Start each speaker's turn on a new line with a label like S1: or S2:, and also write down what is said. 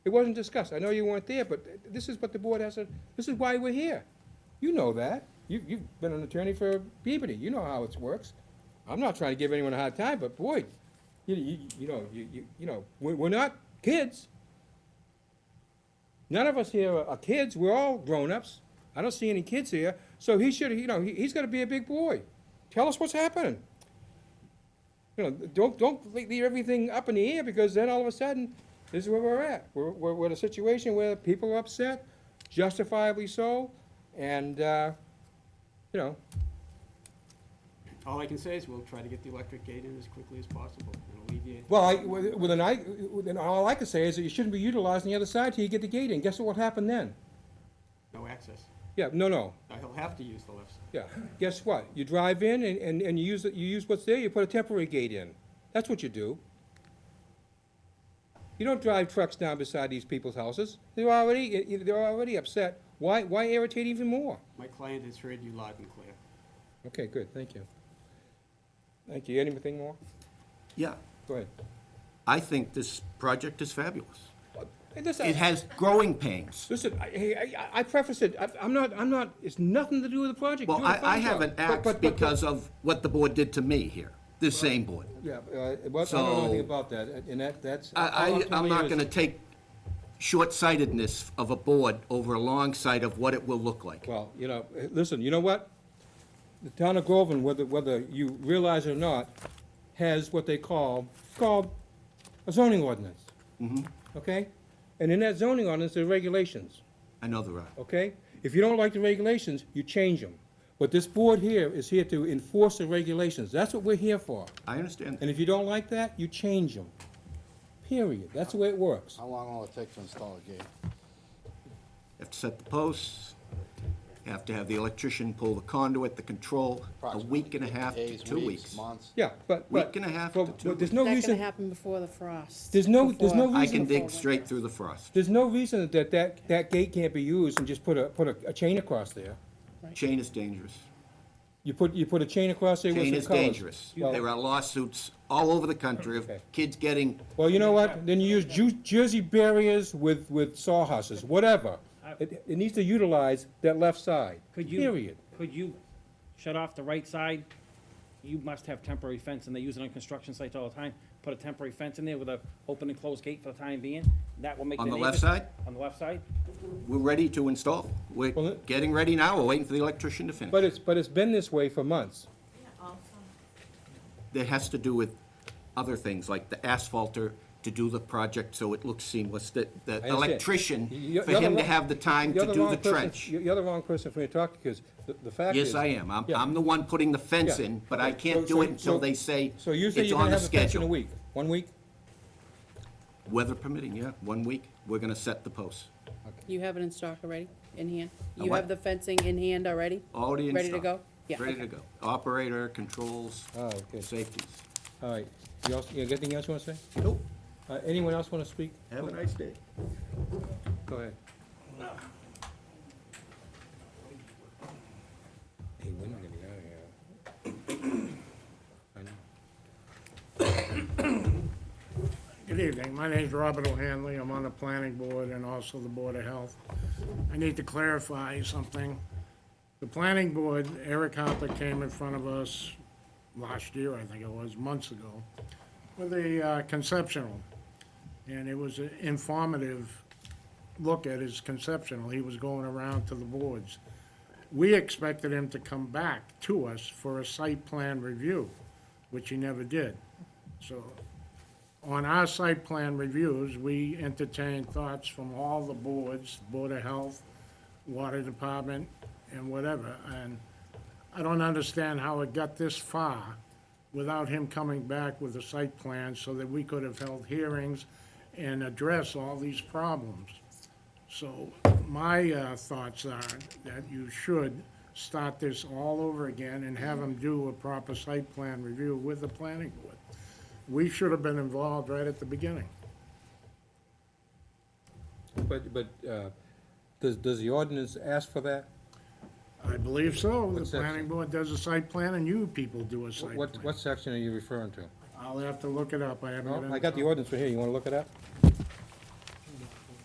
S1: It wasn't discussed. I know you weren't there, but this is what the board has to, this is why we're here. You know that. You, you've been an attorney for Peabody. You know how it works. I'm not trying to give anyone a hard time, but boy, you, you, you know, you, you, you know, we're, we're not kids. None of us here are are kids. We're all grown-ups. I don't see any kids here. So he should, you know, he, he's gotta be a big boy. Tell us what's happening. You know, don't, don't leave everything up in the air because then all of a sudden, this is where we're at. We're, we're, we're in a situation where people are upset, justifiably so, and, uh, you know,
S2: All I can say is we'll try to get the electric gate in as quickly as possible and alleviate.
S1: well, I, with with an, I, with an- all I can say is that you shouldn't be utilizing the other side till you get the gate in. Guess what will happen then?
S2: No access.
S1: Yeah, no, no,
S2: Now, He'll have to use the left side.
S1: yeah. Guess what? You drive in and, and, and you use, it- you use what's there, you put a temporary gate in. That's what you do. You don't drive trucks down beside these people's houses. They're already, they're already upset. Why, why irritate even more?
S2: My client has heard you loud and clear.
S1: Okay, good, thank you. Thank you. Anything more?
S3: Yeah,
S1: Go ahead.
S3: I think this project is fabulous.
S1: Hey, Listen,
S3: It has growing pains.
S1: listen, I, hey, I, I preface it, I, I'm not, I'm not, it's nothing to do with the project.
S3: Well,
S1: Doing a
S3: I, I
S1: fine job.
S3: haven't
S1: But-
S3: axed
S1: but- but-
S3: because of what the board did to me here, this same board.
S1: Yeah, uh, well, I don't know anything
S3: So-
S1: about that, and that, that's. all
S3: I, I,
S1: telling
S3: I'm
S1: you
S3: not
S1: is-
S3: gonna take short-sightedness of a board over a long sight of what it will look like.
S1: Well, you know, eh, listen, you know what? The town of Groveland, whether, whether you realize it or not, has what they call, it's called a zoning ordinance.
S3: Mm-hmm.
S1: Okay? And in that zoning ordinance, there are regulations,
S3: I know there are.
S1: okay? If you don't like the regulations, you change them. But this board here is here to enforce the regulations. That's what we're here for.
S3: I understand.
S1: And if you don't like that, you change them. Period. That's the way it works.
S4: How long will it take to install a gate?
S3: You have to set the posts, you have to have the electrician pull the conduit, the control, a week and a half to
S4: Days,
S3: two weeks.
S4: Months?
S1: Yeah, but, but.
S3: Week and a half
S1: but-
S3: to two
S1: but There's no
S5: That can
S1: reason,
S5: happen before the frost.
S1: There's no- there's no
S5: before-
S3: I
S1: reason
S3: can dig
S5: before
S3: straight
S5: winter.
S3: through the frost.
S1: there's no reason that that, that gate can't be used and just put a, put a, a chain across there.
S3: Chain is dangerous.
S1: You put, you put a chain across there with
S3: Pain
S1: some
S3: is
S1: colors.
S3: dangerous.
S1: Well-
S3: There are lawsuits all over the country of
S1: Okay.
S3: kids getting,
S1: Well, you know what, then you use Ju- Jersey barriers with, with sawhorses, whatever. It, it needs to utilize that left side,
S6: Could you-
S1: period.
S6: Could you shut off the right side? You must have temporary fence, and they use it on construction sites all the time. Put a temporary fence in there with a open and closed gate for the time being. That will make the
S3: On
S6: neighbors.
S3: the left side?
S6: On the left side.
S3: we're ready to install. We're
S1: Well, it-
S3: getting ready now, we're waiting for the electrician to
S1: But
S3: finish.
S1: it's, but it's been this way for months.
S3: That has to do with other things, like the asphalter to do the project so it looks seamless, that the
S1: understand.
S3: electrician,
S1: You're-
S3: for
S1: you're the
S3: him to
S1: wrong-
S3: have the time
S1: You're
S3: to do
S1: wrong
S3: the
S1: person-
S3: trench.
S1: You're the wrong person for me to talk to, because the, the fact is.
S3: Yes, I am. I'm,
S1: Yeah.
S3: I'm the one putting the fence
S1: Yeah.
S3: in, but I
S1: So-
S3: can't
S1: so-
S3: do it
S1: so-
S3: until they say
S1: So you say
S3: it's
S1: you're gonna
S3: on the
S1: have a fence in a
S3: schedule.
S1: week, one week?
S3: Weather permitting, yeah, one week, we're gonna set the posts.
S5: You have it in stock already, in hand?
S3: A
S5: You
S3: what?
S5: have the fencing in hand already?
S3: Already in
S5: Ready to
S3: stock.
S5: go? Yeah,
S3: Ready
S5: okay.
S3: to go. Operator, controls,
S1: Oh, okay.
S3: safeties.
S1: All right, you also, you got anything else you wanna say?
S3: Nope.
S1: Uh, anyone else wanna speak? Oh,
S3: Have a nice day.
S1: Go ahead. Hey, we're not gonna get out of here. I know.
S7: Good evening. My name is Robert O'Hanley. I'm on the planning board and also the Board of Health. I need to clarify something. The planning board, Eric Hopper came in front of us last year, I think it was, months ago, with a uh, conceptual. And it was an informative look at his conceptual. He was going around to the boards. We expected him to come back to us for a site plan review, which he never did. So on our site plan reviews, we entertain thoughts from all the boards, Board of Health, Water Department, and whatever, and I don't understand how it got this far without him coming back with a site plan so that we could have held hearings and address all these problems. So my uh, thoughts are that you should start this all over again and have them do a proper site plan review with the planning board. We should have been involved right at the beginning.
S1: But, but, uh, does, does the ordinance ask for that?
S7: I believe so. The
S1: What section?
S7: planning board does a site plan and you people do a site
S1: What,
S7: plan.
S1: what section are you referring to?
S7: I'll have to look it up. I haven't.
S1: No, I got the ordinance right here, you wanna look it up?